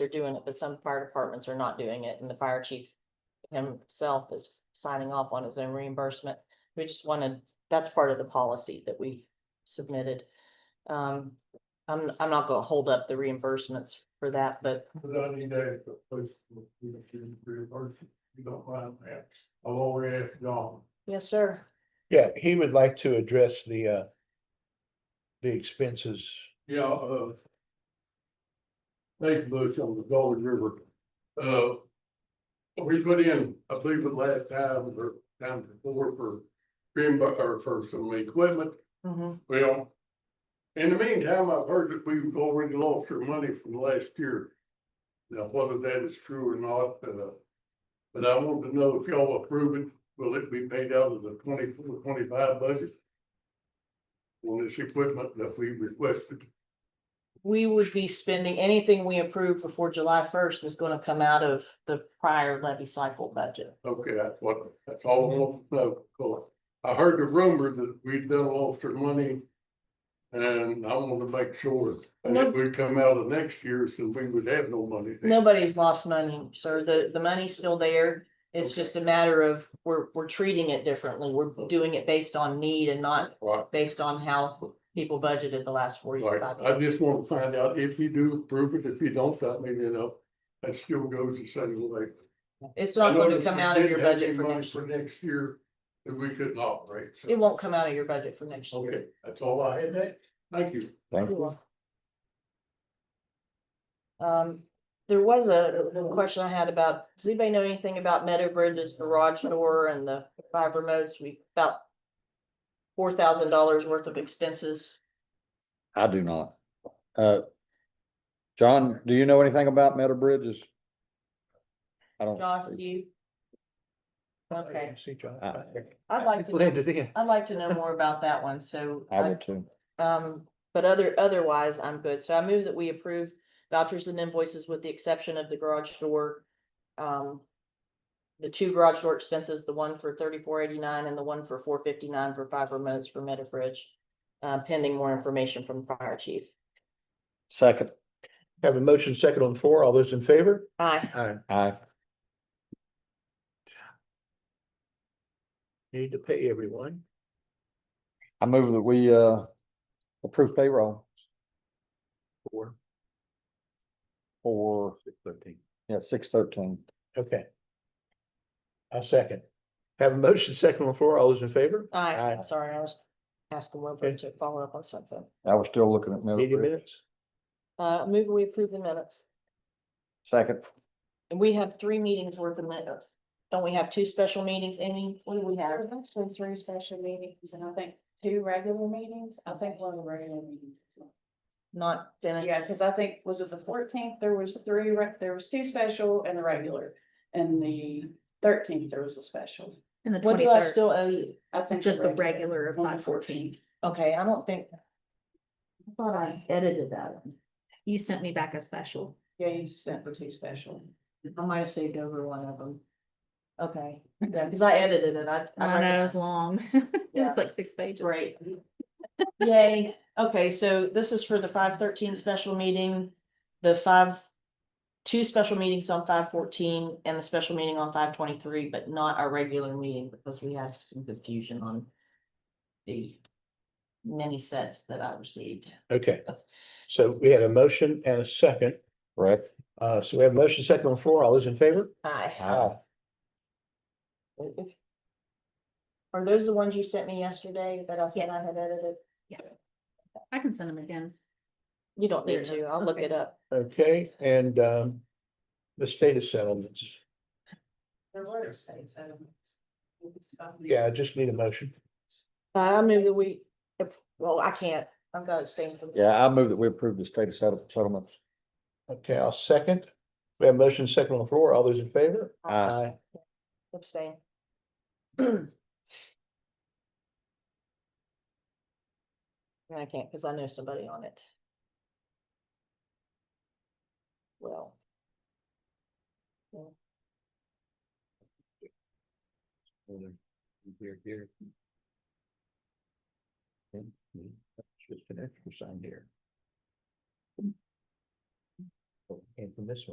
they're doing it, but some fire departments are not doing it, and the fire chief himself is signing off on his own reimbursement. We just wanted, that's part of the policy that we submitted. Um, I'm, I'm not gonna hold up the reimbursements for that, but But I need to post, you can reimburse, you don't mind that, I'll always ask John. yes, sir. Yeah, he would like to address the uh. The expenses. Yeah, uh. Thanks, Butch, on the Golden River. Uh. We put in, I believe the last time or time before for reimbu- or for some equipment, Mhm. well. In the meantime, I've heard that we've already lost our money from last year. Now, whether that is true or not, uh. But I want to know if y'all approve it, will it be paid out of the 24-25 budget? On this equipment that we requested. We would be spending, anything we approve before July first is gonna come out of the prior levy cycle budget. Okay, that's what, that's all I want to know, because I heard the rumor that we'd done lost our money. And I want to make sure that No. if we come out of next year, so we would have no money. then. Nobody's lost money, sir. The, the money's still there. It's Okay. just a matter of, we're, we're treating it differently. We're doing it based on need and not Right, based on how people budgeted the last four years. right. I just want to find out if you do approve it, if you don't, that may, you know, that still goes the same way. It's I not going to noticed come we out of didn't your have budget any for money next, For next year, that we couldn't operate. so- it won't come out of your budget for next year. Okay, that's all I had, Nate. Thank you. Thank Cool. Um, there was a a question I had about, does anybody know anything about Meadow Bridge's garage door and the fiber modes? We about four thousand dollars worth of expenses. I do not. Uh, John, do you know anything about metal bridges? I don't, John, do you? Okay, See John. Uh, I'd like to, know- Landed in. I'd like to know more about that one, so. I would too. Um, but other, otherwise, I'm good. So I move that we approve vouchers and invoices with the exception of the garage door. Um. The two garage door expenses, the one for thirty-four eighty-nine and the one for four fifty-nine for five remotes for Meadowbridge. Uh, pending more information from the fire chief. Second, Have a motion second on the floor. All those in favor? Aye. Aye. I, Need to pay everyone. I move that we, uh, approve payroll Four, for, six, thirteen. yeah, six thirteen. Okay. I'll second. Have a motion second on the floor. All those in favor? Aye, Aye. sorry, I was asking Wilbur to follow up on something. I was still looking at metal Eighty bridge. minutes. Uh, move we approve the minutes. Second, And we have three meetings worth of minutes. Don't we have two special meetings, Amy? What do we have? There's actually three special meetings and I think two regular meetings. I think one of the regular meetings. is not- Uh, Not finished? Yeah, because I think, was it the fourteenth? There was three, reg- there was two special and a regular. And the thirteenth, there was a special. And the What do I twenty-third, still owe you? I think. just the regular of on the five fourteen. Okay, I don't think. I thought I edited that one. You sent me back a special. Yeah, you sent the two special. I might have saved over one of them. Okay, yeah, because I edited it. I. I I know it recognize- was long. It Yeah. was like six pages. Great. Yay. Okay, so this is for the five thirteen special meeting, the five. Two special meetings on five fourteen and the special meeting on five twenty-three, but not our regular meeting because we had some confusion on. The. Many sets that I received. Okay. So we had a motion and a second. correct? Uh, so we have a motion second on the floor. All those in favor? Aye. Aye. Are those the ones you sent me yesterday that I said I Yes. had edited? I can send them again. You don't need There. to, I'll look it Okay. up. Okay, and um. The status settlements. There were state settlements. Yeah, I just need a motion. Uh, I move that we, well, I can't, I've got to abstain from. Yeah, I move that we approve the state of settle- settlements. Okay, I'll second. We have a motion second on the floor. All those in favor? Aye. Abstain. I can't, because I know somebody on it. Well. Here, here. Just an extra sign here. And from this one.